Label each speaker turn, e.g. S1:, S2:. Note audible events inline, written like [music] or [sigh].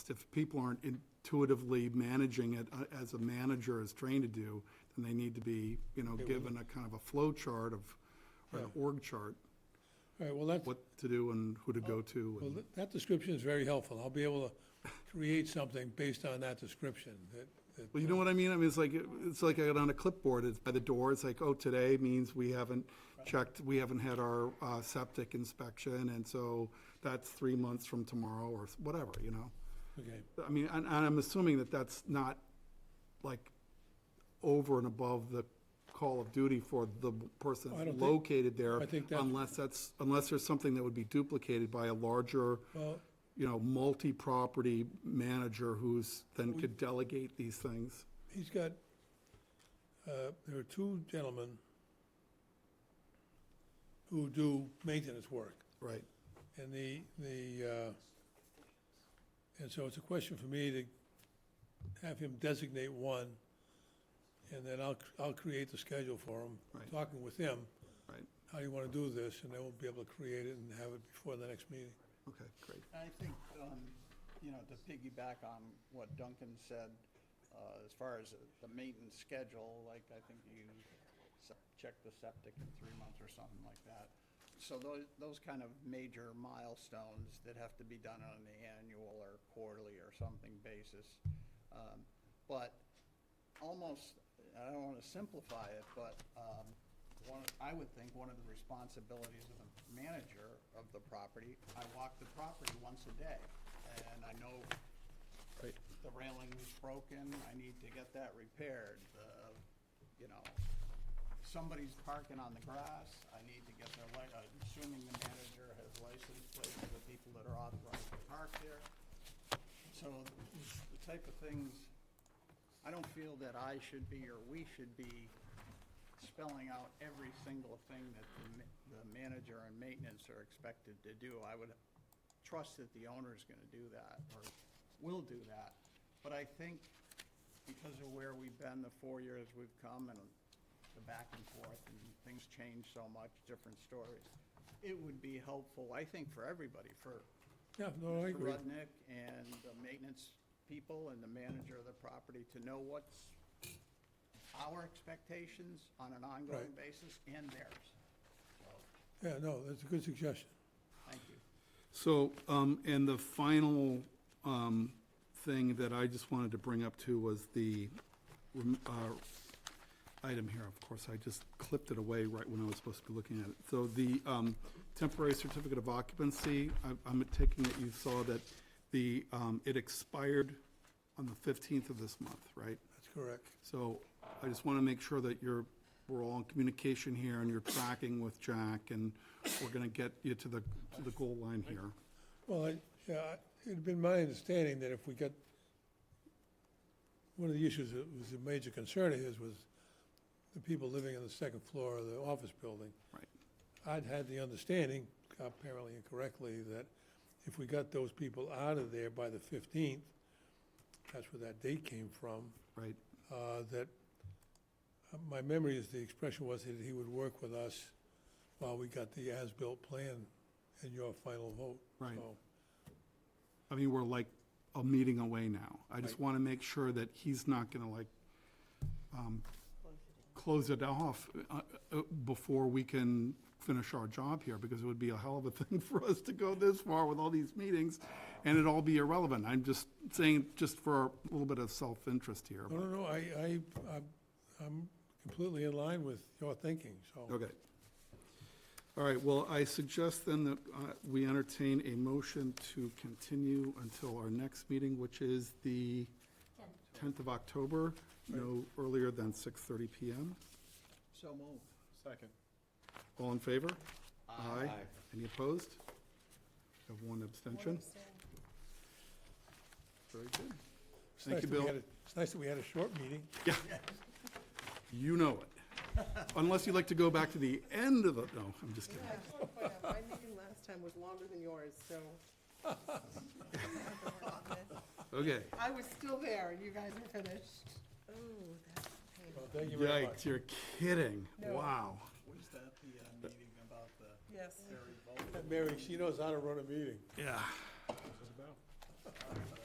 S1: if people aren't intuitively managing it uh, as a manager is trained to do, then they need to be, you know, given a kind of a flow chart of, or an org chart,
S2: All right, well, that,
S1: what to do and who to go to.
S2: well,
S1: and-
S2: that- that description is very helpful. I'll be able to create something based on that description. that- that,
S1: Well, you know what I mean? I mean, it's like, it's like I got on a clipboard, it's by the door, it's like, oh, today means we haven't checked, we haven't had our uh, septic inspection, and so that's three months from tomorrow, or whatever, you know?
S2: Okay,
S1: I mean, and, and I'm assuming that that's not like over and above the call of duty for the person
S2: I don't think-
S1: located there.
S2: I think that-
S1: Unless that's, unless there's something that would be duplicated by a larger,
S2: well,
S1: you know, multi-property manager who's, then could delegate these things.
S2: he's got, uh, there are two gentlemen who do maintenance work.
S1: Right.
S2: And the, the, uh, and so it's a question for me to have him designate one, and then I'll, I'll create the schedule for him.
S1: Right.
S2: Talking with him,
S1: Right,
S2: how do you want to do this, and then we'll be able to create it and have it before the next meeting.
S1: okay, great.
S3: I think, um, you know, to piggyback on what Duncan said, uh, as far as the maintenance schedule, like, I think you se- check the septic in three months or something like that. So those, those kind of major milestones that have to be done on an annual or quarterly or something basis. Um, But almost, I don't want to simplify it, but um, one, I would think one of the responsibilities of the manager of the property, I walk the property once a day, and I know
S1: Right.
S3: the railing is broken, I need to get that repaired, the, you know, somebody's parking on the grass, I need to get their li, I'm assuming the manager has license plates for the people that are authorized to park there. So the type of things, I don't feel that I should be or we should be spelling out every single thing that the, ma- the manager and maintenance are expected to do. I would trust that the owner's gonna do that or will do that. But I think because of where we've been, the four years we've come and the back and forth and things change so much, different stories, it would be helpful, I think, for everybody, for
S2: Yeah, no, Oh, I
S3: Mr.
S2: agree.
S3: Rudnick and the maintenance people and the manager of the property to know what's our expectations on an ongoing
S2: Right.
S3: basis and theirs. So,
S2: Yeah, no, that's a good suggestion.
S3: thank you.
S1: So, um, and the final, um, thing that I just wanted to bring up too was the, rem- uh, item here, of course, I just clipped it away right when I was supposed to be looking at it. So the, um, temporary certificate of occupancy, I- I'm taking it you saw that the, um, it expired on the fifteenth of this month, right?
S2: That's correct.
S1: So I just want to make sure that you're, we're all in communication here and you're tracking with Jack and we're going to get you to the, to the goal line here.
S2: Well, I- yeah, I- it'd been my understanding that if we got, one of the issues that was a major concern of his was the people living on the second floor of the office building.
S1: Right.
S2: I'd had the understanding, apparently incorrectly, that if we got those people out of there by the 15th, that's where that date came from,
S1: Right,
S2: uh, that, uh, my memory is the expression was that he would work with us while we got the as-built plan and your final vote.
S1: Right.
S2: So,
S1: I mean, we're like a meeting away now. I just
S2: Right.
S1: want to make sure that he's not going to like, um, close it off uh, uh, before we can finish our job here, because it would be a hell of a [laughs] thing for us to go this far with all these meetings and it'd all be irrelevant. I'm just saying, just for a little bit of self-interest here.
S2: No, no, no, I, I, I'm- I'm completely in line with your thinking, so.
S1: Okay. All right, well, I suggest then that uh, we entertain a motion to continue until our next meeting, which is the 10th of October, no earlier than 6:30 PM.
S3: So move.
S4: Second.
S1: All in favor? Aye. Any opposed? Have one abstention? Very good.
S2: It's
S1: Thank
S2: nice
S1: you,
S2: that we
S1: Bill.
S2: had a- It's nice that we had a short meeting.
S1: You know it.
S2: [laughs]
S1: Unless you'd like to go back to the end of the, no, I'm just kidding.
S5: My meeting last time was longer than yours, so.
S1: Okay.
S5: I was still there, you guys are finished. Oh, that's painful.
S2: Well, thank you very much.
S1: Yikes, you're kidding.
S5: No.
S1: Wow.
S3: Was that the uh, meeting about the
S5: Yes.
S3: ferry boat?
S2: Mary, she knows how to run a meeting.
S1: Yeah.